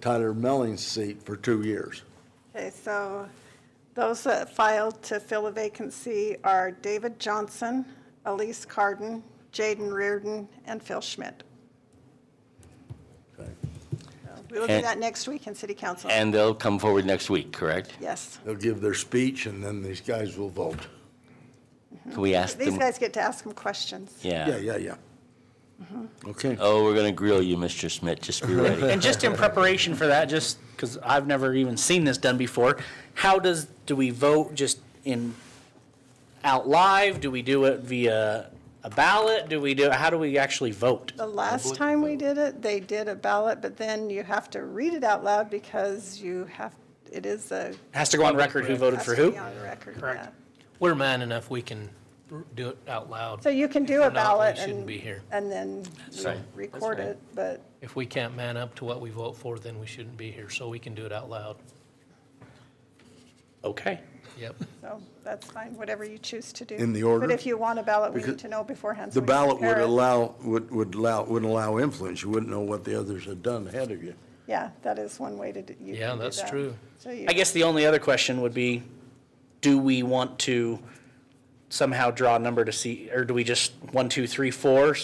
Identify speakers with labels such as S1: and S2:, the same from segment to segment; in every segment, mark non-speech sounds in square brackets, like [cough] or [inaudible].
S1: Tyler Melling's seat for two years.
S2: Okay, so those that filed to fill a vacancy are David Johnson, Elise Carden, Jaden Reardon, and Phil Schmidt.
S1: Okay.
S2: We will do
S3: And-
S2: that next week in city council.
S3: And they'll come forward next week, correct?
S2: Yes.
S1: They'll give their speech, and then these guys will vote.
S3: Can we ask
S2: These
S3: them?
S2: guys get to ask them questions.
S1: Yeah,
S3: Yeah.
S1: yeah, yeah.
S4: Mm-hmm.
S1: Okay.
S3: Oh, we're going to grill you, Mr. Schmidt. Just
S5: Uh-huh.
S3: be ready.
S4: And just in preparation for that, just because I've never even seen this done before, how does, do we vote just in, out live? Do we do it via a ballot? Do we do, how do we actually vote?
S2: The last time we did it, they did a ballot, but then you have to read it out loud because you have, it is a.
S4: Has to go on record who voted
S2: has
S4: for
S2: to
S4: who?
S2: be on record,
S4: Correct.
S2: yeah.
S6: We're man enough, we can r- do it out loud.
S2: So you can do a
S6: If we're not, we
S2: ballot
S6: shouldn't
S2: and,
S6: be here.
S2: and then you
S3: right.
S2: record
S3: That's
S2: it, but
S6: If we can't man up to what we vote for, then we shouldn't be here, so we can do it out loud.
S4: Okay.
S5: [laughs]
S6: Yep.
S2: So that's fine, whatever you choose to do.
S1: In the order?
S2: But if you want a ballot, we need
S1: Because
S2: to know beforehand. so
S1: The
S2: we can
S1: ballot would
S2: compare it.
S1: allow, would, would allow, wouldn't allow influence. You wouldn't know what the others had done ahead of you.
S2: Yeah, that is one way to, do- you
S6: Yeah,
S2: can do
S6: that's
S2: that.
S6: true.
S2: So you,
S4: I guess the only other question would be, do we want to somehow draw a number to see, or do we just one, two, three, four?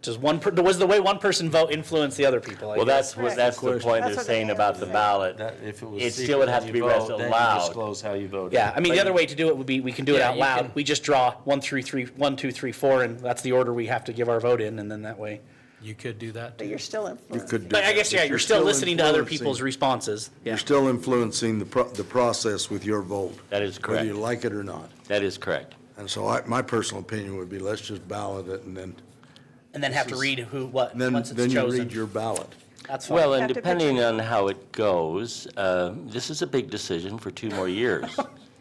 S4: Does one, per- was the way one person vote influence the other people? I
S3: Well,
S4: guess?
S3: that's, what- that's the point
S2: That's
S3: they're
S2: what
S3: saying
S2: they
S3: about
S2: are
S3: the
S2: saying.
S3: ballot.
S5: That, if it was
S3: It
S5: secret
S3: still would have
S5: when
S3: to be
S5: you
S3: read
S5: vote,
S3: out
S5: then you
S3: loud.
S5: disclose how you voted.
S4: Yeah, I mean, the
S3: But
S4: other
S3: you-
S4: way to do it would be, we can do it
S6: Yeah,
S4: out
S6: you
S4: loud.
S6: can-
S4: We just draw one, three, three, one, two, three, four, and that's the order we have to give our vote in, and then that way.
S6: You could do that,
S2: but
S6: too.
S2: you're still
S1: You
S2: influenced.
S1: could do
S4: But I
S1: that,
S4: guess, yeah, you're still listening to other people's
S1: influencing-
S4: responses. Yeah.
S1: You're still influencing the, pro- the process with your vote.
S3: That is
S1: Whether you
S3: correct.
S1: like it or not.
S3: That is correct.
S1: And so I, my personal opinion would be, let's just ballot it, and then,
S4: And then have to read who, what,
S1: and then,
S4: once
S1: then
S4: it's
S1: you read
S4: chosen.
S1: your ballot.
S4: That's fine.
S3: Well, and
S2: Have to
S3: depending
S2: picture-
S3: on how it goes, uh, this is a big decision for two more years.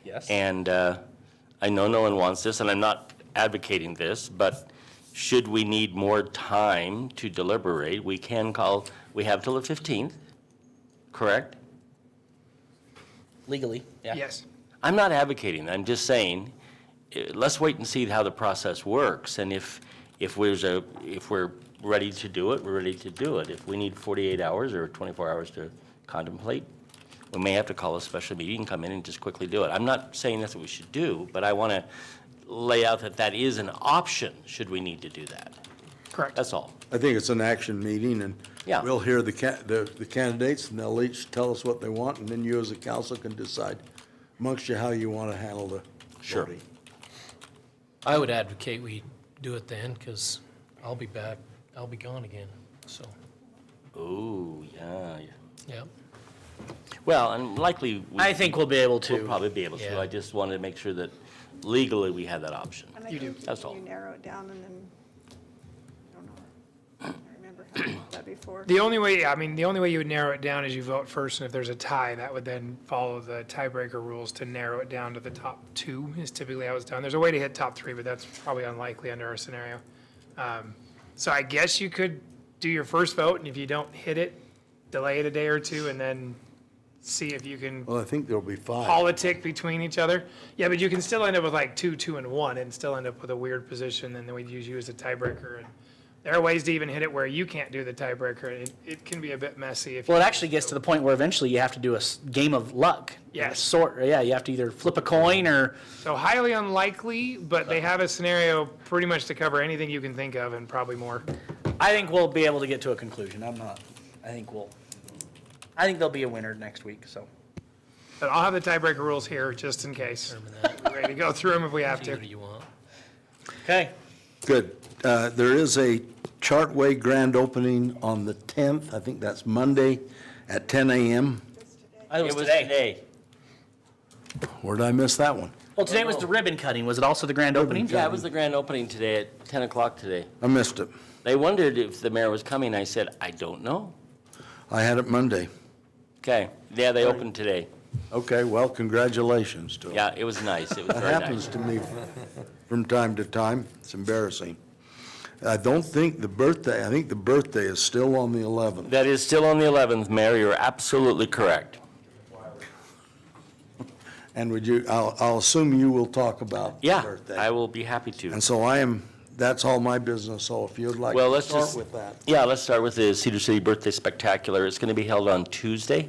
S4: Yes.
S3: And uh, I know no one wants this, and I'm not advocating this, but should we need more time to deliberate, we can call, we have till the 15th, correct?
S4: Legally, yeah.
S7: Yes.
S3: I'm not advocating, I'm just saying, eh, let's wait and see how the process works, and if, if there's a, if we're ready to do it, we're ready to do it. If we need 48 hours or 24 hours to contemplate, we may have to call a special meeting, come in and just quickly do it. I'm not saying that's what we should do, but I want to lay out that that is an option, should we need to do that.
S7: Correct.
S3: That's all.
S1: I think it's an action meeting, and
S3: Yeah.
S1: we'll hear the ca, the, the candidates, and they'll each tell us what they want, and then you as a council can decide amongst you how you want to handle the
S3: Sure.
S1: voting.
S6: I would advocate we do it then, because I'll be back, I'll be gone again, so,
S3: Ooh, yeah. yeah.
S6: yep.
S3: Well, and likely. we-
S4: I think we'll be able to.
S3: We'll probably be able to.
S6: Yeah.
S3: I just wanted to make sure that legally we had that option.
S2: And I think
S3: That's all.
S2: You narrow it down and then, I don't know, I don't remember how I did that before.
S7: The only way, I mean, the only way you would narrow it down is you vote first, and if there's a tie, that would then follow the tiebreaker rules to narrow it down to the top two is typically how it's done. There's a way to hit top three, but that's probably unlikely under our scenario. Um, So I guess you could do your first vote, and if you don't hit it, delay it a day or two, and then see if you can
S1: Well, I think there'll be five.
S7: politic between each other. Yeah, but you can still end up with like two, two, and one, and still end up with a weird position, and then we'd use you as a tiebreaker. And there are ways to even hit it where you can't do the tiebreaker. It, it can be a bit messy if.
S4: Well, it
S7: you-
S4: actually gets to the point where eventually you have to do a s- game of luck.
S7: Yes.
S4: Sort, yeah, you have to either flip a coin or,
S7: So highly unlikely, but they have a scenario pretty much to cover anything you can think of, and probably more.
S4: I think we'll be able to get to a conclusion. I'm not, I think we'll, I think there'll be a winner next week, so.
S7: But I'll have the tiebreaker rules here just in case. We're Ready to go through them if we have
S6: Do
S7: to.
S6: what you want.
S4: Okay.
S1: Good. Uh, there is a Chartway grand opening on the tenth, I think that's Monday, at ten AM.
S4: I think it was today.
S1: Where did I miss that one?
S4: Well, today was the ribbon cutting. Was it also the grand opening?
S3: Yeah, it was the grand opening today at 10 o'clock today.
S1: I missed it.
S3: They wondered if the mayor was coming. I said, I don't know.
S1: I had it Monday.
S3: Okay, yeah, they opened today.
S1: Okay, well, congratulations to 'em.
S3: Yeah, it was nice.
S1: [laughs]
S3: It was
S1: That
S3: very
S1: happens
S3: nice.
S1: to me from time to time. It's embarrassing. I don't think the birthday, I think the birthday is still on the 11th.
S3: That is still on the 11th, Mayor. You're absolutely correct.
S1: And would you, I'll, I'll assume you will talk about the
S3: Yeah,
S1: birthday.
S3: I will be happy to.
S1: And so I am that's all my business, so if you'd like
S3: Well,
S1: to
S3: let's
S1: start
S3: just.
S1: with that.
S3: Yeah, let's start with the Cedar City Birthday Spectacular. It's going to be held on Tuesday.